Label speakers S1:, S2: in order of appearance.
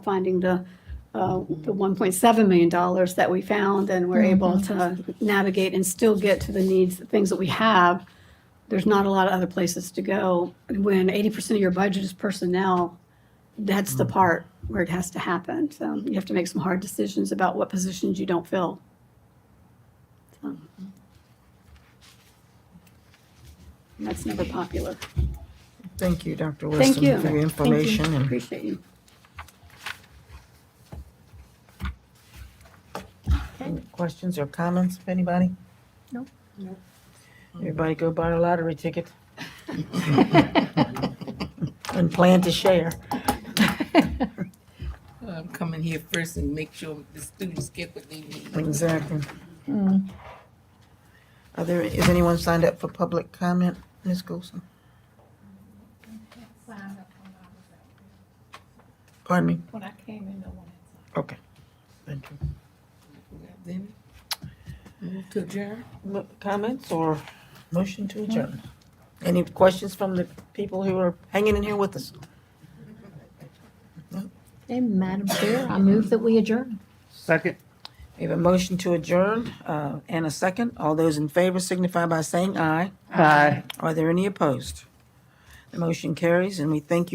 S1: finding the, uh, the $1.7 million that we found and
S2: Mm-hmm.
S1: we're able to navigate and still get to the needs, the things that we have. There's not a lot of other places to go. When 80% of your budget is personnel, that's
S2: Mm.
S1: the part where it has to happen. So you have to make some hard decisions about what positions you don't fill. So. And That's never popular.
S2: Thank you,
S1: Thank
S2: Dr. Wilson,
S1: you.
S2: for your information. and-
S1: Appreciate you.
S2: Any Questions or comments, if anybody?
S3: No.
S2: Everybody go buy a lottery ticket. And plan to share.
S4: I'm coming um, here first and make sure the students get what they need.
S2: Exactly.
S1: Hmm.
S2: Are there, is anyone signed up for public comment, Ms. Golson? Pardon me?
S3: When I came in, no one
S2: Okay. Thank you.
S4: Then, move to adjourn.
S2: Mo- Comments or motion to adjourn? Any questions from the people who are hanging in here with us?
S3: And Madam Chair, I move that we adjourn.
S5: Second.
S2: We have a motion to adjourn uh, and a second. All those in favor signify by saying aye.
S5: Aye.
S2: Are there any opposed? The motion carries, and we thank you.